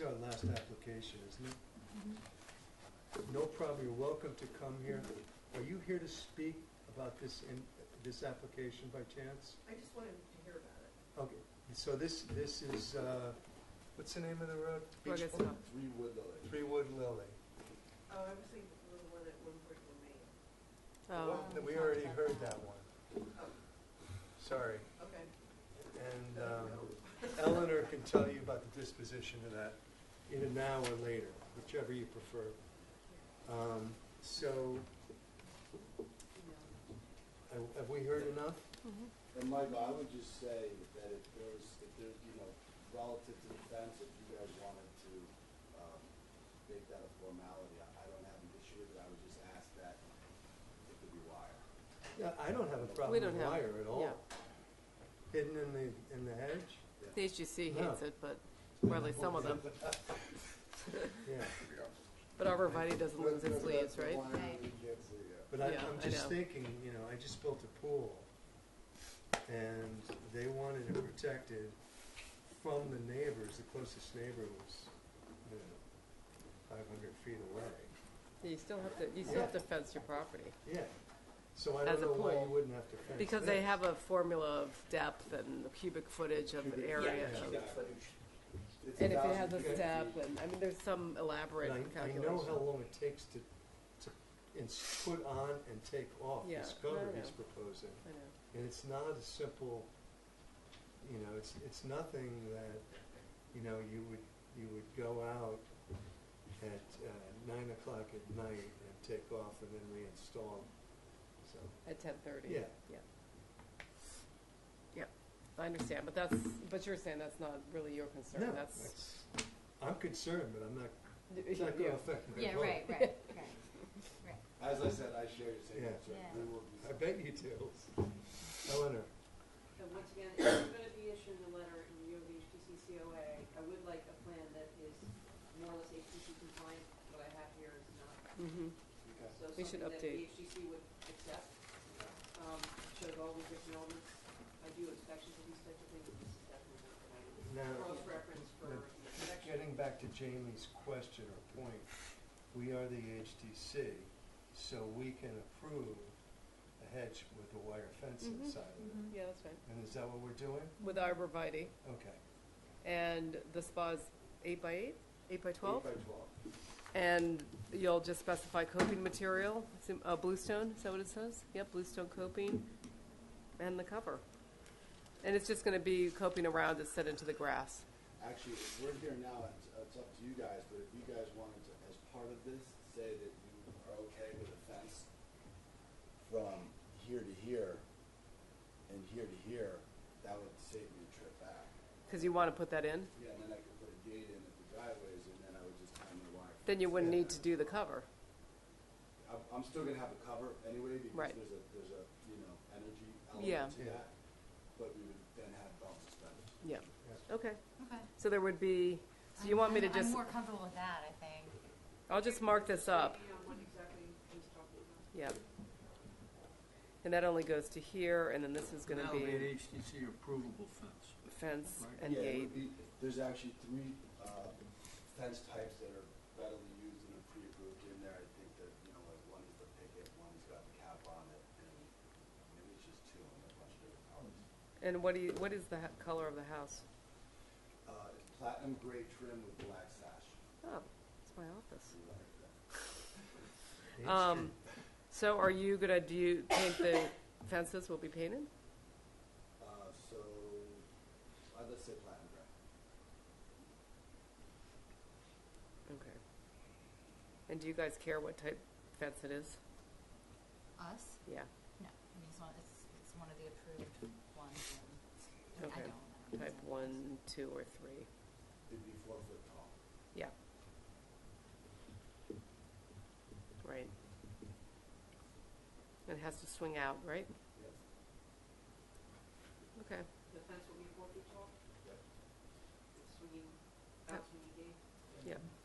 Um, last application, isn't it? No problem, you're welcome to come here. Are you here to speak about this, in this application by chance? I just wanted to hear about it. Okay, so this, this is, uh, what's the name of the road? Well, Beach- it's not- Three wood lilies. Three Wood Lily. Oh, I was thinking of the one at one point in Maine. oh, Well, We already heard that one, Oh, sorry. okay. And um, Eleanor can tell you about the disposition of that in an hour later, whichever you prefer. Um, So, have- have we heard enough? And Michael, I would just say that if there's, if there's, you know, relative to the fence, if you guys wanted to, um, make that a formality, I, I don't have an issue with it, I would just ask that it could be wire. Yeah, I don't have a problem We with don't have- wire at all. yeah. Hidden in the, in the hedge? The HGC No. hates it, but, or at least some of them. Yeah. But arborvitae doesn't lose its leaves, right? Right. But I, Yeah, I'm I just know. thinking, you know, I just built a pool, and they wanted it protected from the neighbors. The closest neighbor was, you know, 500 feet away. You still have to, you still have to fence your property. Yeah. So I don't As a know why you pool. wouldn't have to fence Because they this. have a formula of depth and the cubic footage of an area. yeah. of- Cubic And if it has a step, and, I mean, there's some elaborate And I, I know how calculation. long it takes to, to ins- put on and take off Yeah, this I cover know. he's proposing. I know. And it's not a simple, you know, it's, it's nothing that, you know, you would, you would go out at uh, nine o'clock at night and take off and then reinstall. So, At ten thirty. Yeah. Yeah. Yeah, I understand, but that's, but you're saying that's not really your concern, no, that's. that's, I'm concerned, but I'm not, it's oh, not you. gonna affect my Yeah, vote. right, right, right. As I said, I share your same Yeah. concern, we Yeah. will be. I bet you do. Eleanor, And once again, if you're gonna be issuing a letter in view of the HTC COA, I would like a plan that is more or less HTC compliant. What I have here is not. Mhm. Okay. So We should something that the update. HTC would accept, um, shows all the different elements. I do inspections of these types of things, this is definitely not what I do. now, Cross-reference for Yeah. inspection. Getting back to Jamie's question or point, we are the HTC, so we can approve a hedge with a wire fence Mm-hmm. Mhm, inside of Yeah, that's right. it. And is that what we're doing? With arborvitae, Okay. and the spa's eight by eight, eight by twelve? Eight by twelve. And you'll just specify coping material, sim- uh, bluestone, is that what it says? Yep, bluestone coping, and the cover. And it's just gonna be coping around that's set into the grass. Actually, if we're here now, it's, it's up to you guys, but if you guys wanted to, as part of this, say that you are okay with a fence from here to here and here to here, that would save me a trip back. Because you wanna put that in, Yeah, and then I could put a gate in at the driveways and then I would just hang the wire. then you wouldn't Yeah. need to do the cover. I'm, I'm still gonna have a cover anyway because Right. there's a, there's a, you know, energy Yeah. element to Yeah. that. But we would then have belt suspenders. Yeah, okay. Okay. So there would be, so you want me to I'm- just, I'm more comfortable with that, I think. I'll just mark this up, Depending on what exactly he's talking about. yeah. And that only goes to here, and then this is gonna That'll be an be HTC approvable fence. fence Right. and yeah, it gate. would be- There's actually three uh, fence types that are readily used and are pre-approved in there. I think that, you know, like one is the picket, one's got the cap on it, and maybe it's just two and a bunch of different colors. And what do you, what is the ha- color of the house? Uh, It's platinum gray trim with black sash. Oh, it's my office. You like that? Um, so are you gonna do, paint the fences will be painted? Uh, So, uh, let's say platinum gray. Okay. And do you guys care what type fence it is? Us? Yeah, No, I mean, it's one, it's, it's one of the approved ones, and I Okay. don't. I don't type know. one, two, or three. It'd be four foot tall. Yeah. Right. It has to swing out, right? Yes. Okay. The fence will be four feet tall? Yep. Swinging, out swinging gate? Yeah.